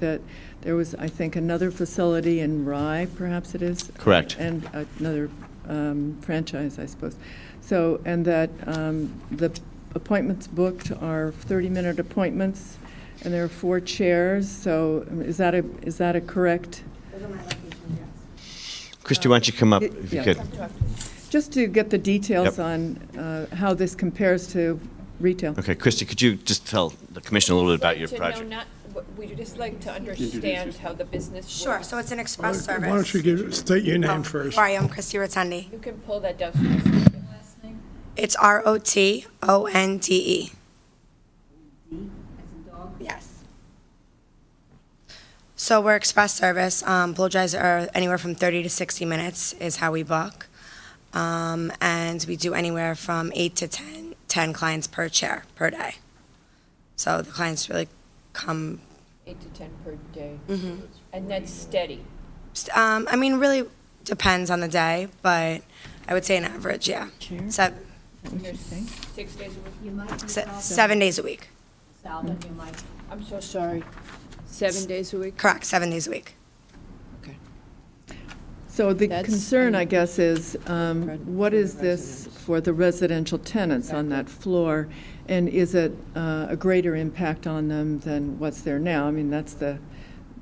that there was, I think, another facility in Rye, perhaps it is? Correct. And another um, franchise, I suppose. So, and that um, the appointments booked are 30-minute appointments, and there are four chairs, so um, is that a, is that a correct? Those are my locations, yes. Christy, why don't you come up It- if you yeah. could? Just to get the details Yep. on uh, how this compares to retail. Okay, Christy, could you just tell the commission a little bit about your to know project? not- what- We'd just like to understand how the business works. Sure, so it's an express service. Um, Why don't you give, state your Oh. name first? Sorry, I'm Christy Rotundi. You can pull that down. so you can see it. It's R-O-T-O-N-D-E. E. Yes. So we're express service. Um, blow dries are anywhere from 30 to 60 minutes is how we book. Um, and we do anywhere from eight to 10, 10 clients per chair, per day. So the clients really come Eight to 10 per day. And that's steady. Um, I mean, really depends on the day, but I would say an average, yeah. Se- There's Six days a week. You might be se- called seven days a week. Sal, and you might I'm so sorry. Seven days a week? Correct, seven days a week. Okay. So the That's- concern, I guess, is um, Right, what is this for the residential tenants on that floor? And is it uh, a greater impact on them than what's there now? I mean, that's the,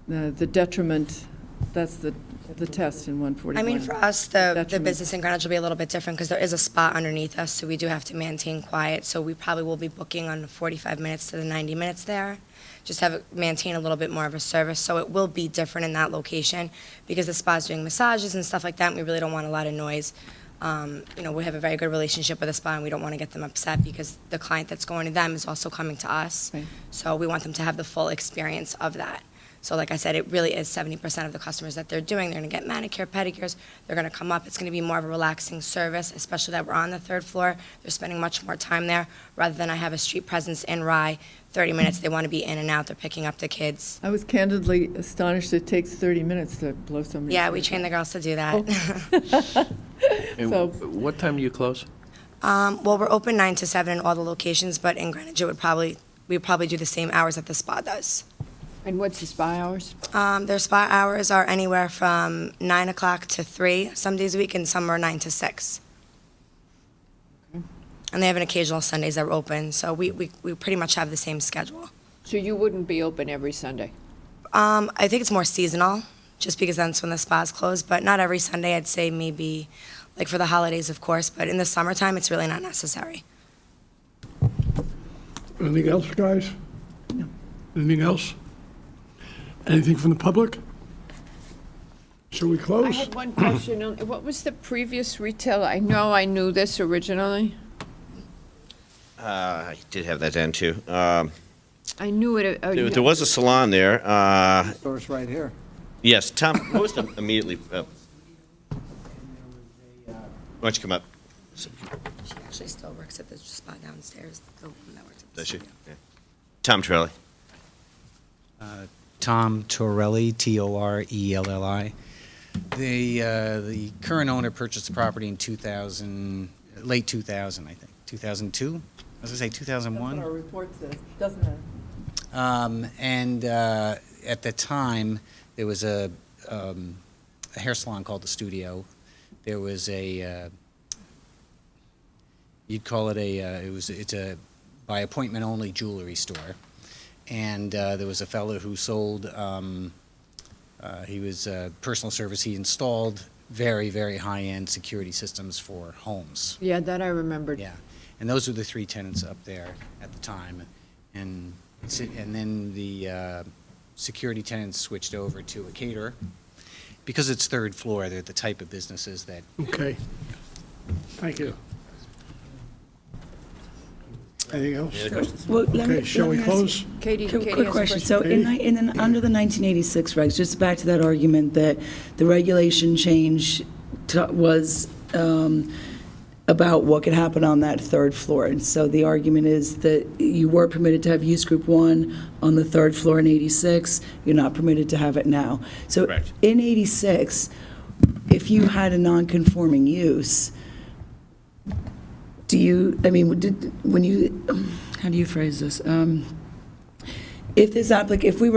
the the detriment, that's the, the test in 141. I mean, for us, the, the Detriment. business in Greenwich will be a little bit different because there is a spot underneath us, so we do have to maintain quiet. So we probably will be booking on 45 minutes to the 90 minutes there. Just have, it- maintain a little bit more of a service. So it will be different in that location because the spa's doing massages and stuff like that. And we really don't want a lot of noise. Um, you know, we have a very good relationship with the spa and we don't want to get them upset because the client that's going to them is also coming to us. Right. So we want them to have the full experience of that. So like I said, it really is 70% of the customers that they're doing. They're going to get manicure, pedicures. They're going to come up. It's going to be more of a relaxing service, especially that we're on the third floor. They're spending much more time there rather than I have a street presence in Rye. 30 minutes, they want to be in and out. They're picking up the kids. I was candidly astonished it takes 30 minutes to blow somebody's. Yeah, we ears train the girls to do that. And So- what time do you close? Um, well, we're open 9 to 7 in all the locations, but in Greenwich, it would probably, we would probably do the same hours that the spa does. And what's the spa hours? Um, their spa hours are anywhere from nine o'clock to three, some days a week, and some are nine to six. And they have an occasional Sundays that are open, so we, we, we pretty much have the same schedule. So you wouldn't be open every Sunday? Um, I think it's more seasonal, just because that's when the spa's close, but not every Sunday, I'd say maybe, like for the holidays, of course, but in the summertime, it's really not necessary. Anything else, guys? Anything else? Anything from the public? Shall we I close? had one question. on- What was the previous retail? I know I knew this originally. Uh, I did have that down, too. Um, I knew it. uh, There there was a salon there. uh, Source right here. Yes, Tom, what was the immediately, uh, why don't you come up? She actually still works at the spa downstairs, the woman that works at the Does she? spa. Yeah. Tom Trelli. Tom Torelli, T O R E L L I. The uh, the current owner purchased the property in 2000, late 2000, I think, 2002. I was gonna say That's what our 2001. report says, doesn't it? Um, and uh, at the time, there was a, um, a hair salon called the Studio. There was a uh, you'd call it a uh, it was it's a by appointment only jewelry store, and uh, there was a fellow who sold. Um, uh, he was uh, personal service. He installed very very high end security systems for homes. Yeah, that I remembered. Yeah, and those were the three tenants up there at the time, and si- and then the uh, security tenants switched over to a caterer. Because it's third floor, they're the type of businesses that Okay. Thank you. Anything else? Well, let me- Okay, shall let we me ask you close? Katie, Katie a Quick has a quick question. So question. in, ni- in, the- under the 1986 regs, just back to that argument that the regulation change to- was um, about what could happen on that third floor. And so the argument is that you were permitted to have use group one on the third floor in 86, you're not permitted to have it now. So Correct. in 86, if you had a non-conforming use, do you, I mean, did, when you, how do you phrase this? Um, If this applic, if we were